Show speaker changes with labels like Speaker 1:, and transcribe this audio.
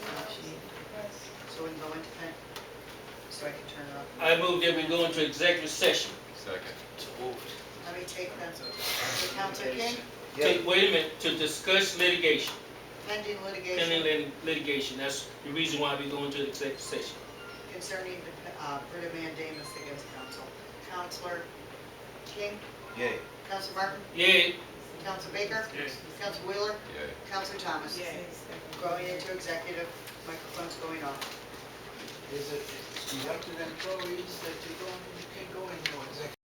Speaker 1: so I can turn it off.
Speaker 2: I move that we go into executive session.
Speaker 3: Second.
Speaker 1: Let me take them. Counselor King,
Speaker 2: Take, wait a minute, to discuss litigation,
Speaker 1: pending
Speaker 2: pending
Speaker 1: litigation
Speaker 2: lit- litigation, that's the reason why we go into executive session.
Speaker 1: concerning the, uh, writ of mandamus against counsel. Counselor King,
Speaker 4: Yay.
Speaker 1: Counselor Martin,
Speaker 2: Yay,
Speaker 1: Counselor Baker,
Speaker 5: Yes.
Speaker 1: Counselor Wheeler,
Speaker 3: Yay.
Speaker 1: Counselor Thomas. Going into executive, microphone's going off.
Speaker 4: Is it elected employees that you go, you can go in your executive